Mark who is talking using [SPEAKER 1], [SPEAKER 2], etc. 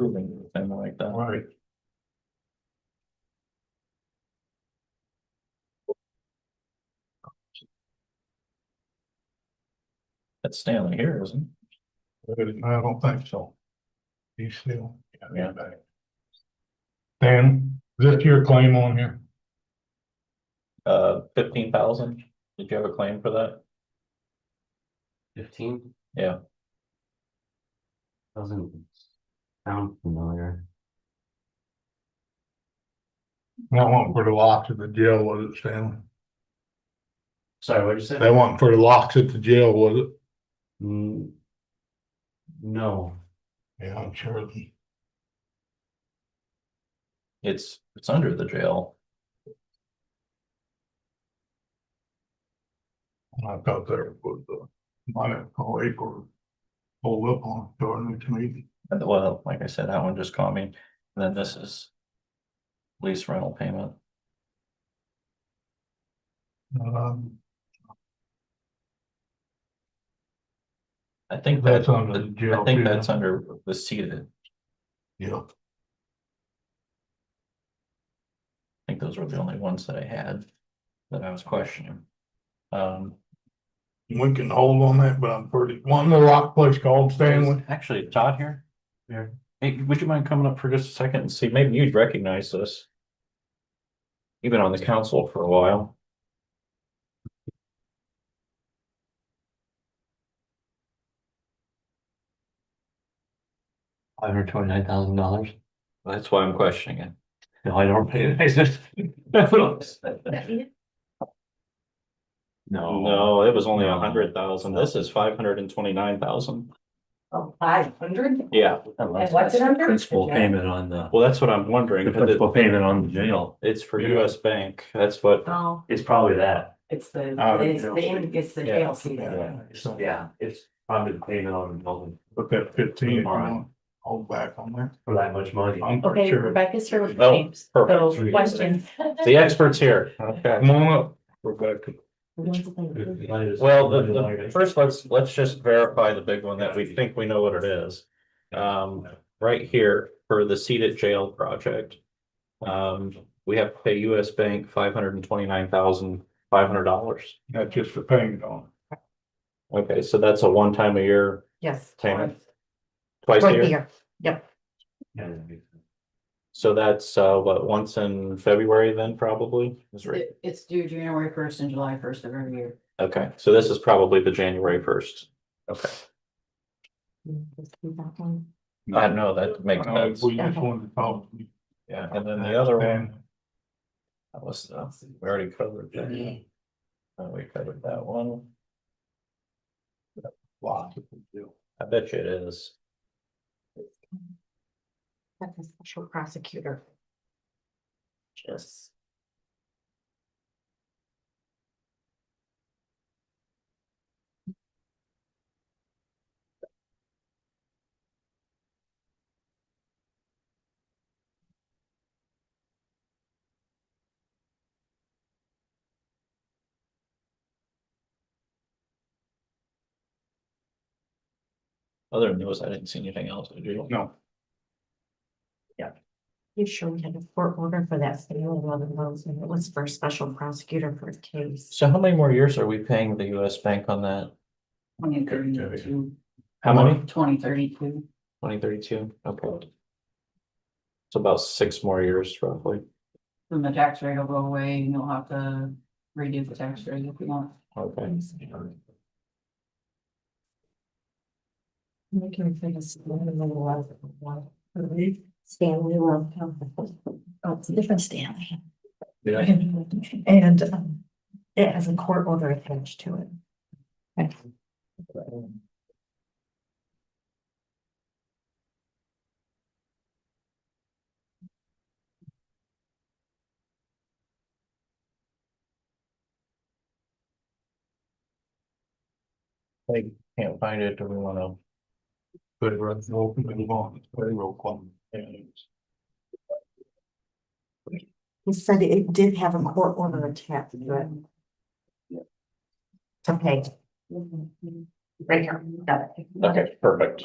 [SPEAKER 1] approving them like that.
[SPEAKER 2] Right.
[SPEAKER 1] That's Stanley here, isn't
[SPEAKER 2] I don't think so. He's still.
[SPEAKER 1] Yeah.
[SPEAKER 2] Dan, is this your claim on here?
[SPEAKER 1] it? Uh, fifteen thousand? Did you have a claim for that?
[SPEAKER 3] Fifteen?
[SPEAKER 1] Yeah.
[SPEAKER 3] Doesn't sound familiar.
[SPEAKER 2] That one for the locks at the jail, was it, Stanley?
[SPEAKER 3] Sorry, what'd you say?
[SPEAKER 2] That one for the locks at the jail, was it?
[SPEAKER 3] Mm, No,
[SPEAKER 2] Yeah, I'm sure. the-
[SPEAKER 1] It's, it's under the jail.
[SPEAKER 2] I thought there was a minor awake or hold up on during the meeting.
[SPEAKER 1] And well, like I said, that one just caught me. And then this is lease rental payment.
[SPEAKER 2] Um,
[SPEAKER 1] I think
[SPEAKER 2] That's
[SPEAKER 1] that's,
[SPEAKER 2] under the jail
[SPEAKER 1] I think
[SPEAKER 2] too,
[SPEAKER 1] that's
[SPEAKER 2] huh?
[SPEAKER 1] under the seated.
[SPEAKER 2] yeah,
[SPEAKER 1] I think those were the only ones that I had that I was questioning. Um,
[SPEAKER 2] we can hold on that, but I'm pretty, one the rock place called Stanley.
[SPEAKER 1] is actually, Todd here. Here. Hey, would you mind coming up for just a second and see, maybe you'd recognize this. You've been on the council for a while.
[SPEAKER 3] five hundred twenty-nine thousand dollars.
[SPEAKER 1] That's why I'm questioning it.
[SPEAKER 3] No, I don't pay it. No.
[SPEAKER 1] No, it was only a hundred thousand. This is five hundred and twenty-nine thousand.
[SPEAKER 4] Oh, five hundred?
[SPEAKER 1] Yeah,
[SPEAKER 4] And what's it under?
[SPEAKER 3] Principal
[SPEAKER 4] Yeah.
[SPEAKER 3] payment on the,
[SPEAKER 1] well, that's what I'm wondering.
[SPEAKER 3] the principal payment on the jail.
[SPEAKER 1] It's for
[SPEAKER 2] Yeah.
[SPEAKER 1] US Bank. That's what,
[SPEAKER 4] Oh,
[SPEAKER 3] It's probably that.
[SPEAKER 4] it's the,
[SPEAKER 3] Oh, the
[SPEAKER 4] it's the,
[SPEAKER 3] jail.
[SPEAKER 4] it's the
[SPEAKER 1] Yeah.
[SPEAKER 4] jail seat.
[SPEAKER 3] So, yeah, it's probably the payment on the building
[SPEAKER 2] Put that fifteen, if you
[SPEAKER 3] All right.
[SPEAKER 2] want, hold back on that.
[SPEAKER 3] for that much money.
[SPEAKER 2] I'm pretty
[SPEAKER 4] Okay,
[SPEAKER 2] sure.
[SPEAKER 4] Rebecca's here with
[SPEAKER 1] Oh,
[SPEAKER 4] James.
[SPEAKER 1] perfect.
[SPEAKER 4] So
[SPEAKER 1] Three.
[SPEAKER 4] question.
[SPEAKER 1] the expert's here. Okay.
[SPEAKER 2] Come on up, Rebecca.
[SPEAKER 1] Well, the, the, first, let's, let's just verify the big one that we think we know what it is. Um, right here for the seated jail project. Um, we have to pay US Bank five hundred and twenty-nine thousand, five hundred dollars.
[SPEAKER 2] That's just the payment on
[SPEAKER 1] Okay, so that's a one time a year,
[SPEAKER 4] Yes.
[SPEAKER 1] Tammy. twice a year. So that's, uh, what, once in February then probably? Is right.
[SPEAKER 4] It- It's due January first and July first of every year.
[SPEAKER 1] Okay, so this is probably the January first. Okay.
[SPEAKER 2] it.
[SPEAKER 1] I know that makes
[SPEAKER 2] No,
[SPEAKER 1] sense.
[SPEAKER 2] We just wanted to talk.
[SPEAKER 1] Yeah, and then the other one. That was, uh, we already covered that. Uh, we covered that one.
[SPEAKER 2] Lots of them do.
[SPEAKER 1] I bet you it is.
[SPEAKER 4] That's a special prosecutor. Just.
[SPEAKER 1] Other than those, I didn't see anything else. Did you?
[SPEAKER 2] No,
[SPEAKER 5] You sure we had a court order for that sale of eleven loans and it was for a special prosecutor for a case?
[SPEAKER 1] So how many more years are we paying the US Bank on that?
[SPEAKER 4] Twenty thirty-two.
[SPEAKER 1] How many?
[SPEAKER 4] Twenty thirty-two.
[SPEAKER 1] Twenty thirty-two, okay. It's about six more years roughly.
[SPEAKER 4] Then the tax rate will go away and you'll have to redo the tax rate if you want.
[SPEAKER 1] Okay.
[SPEAKER 5] We can fit a small little lot of one. Stanley Love Company. Oh, it's a different Stanley.
[SPEAKER 1] Yeah.
[SPEAKER 5] And um, it has a court order attached to it.
[SPEAKER 1] I can't find it. Do we wanna?
[SPEAKER 2] but it's open and on, payroll claim.
[SPEAKER 5] He said it did have a court order attached to it. To pay. Right here, got it.
[SPEAKER 1] Okay, perfect.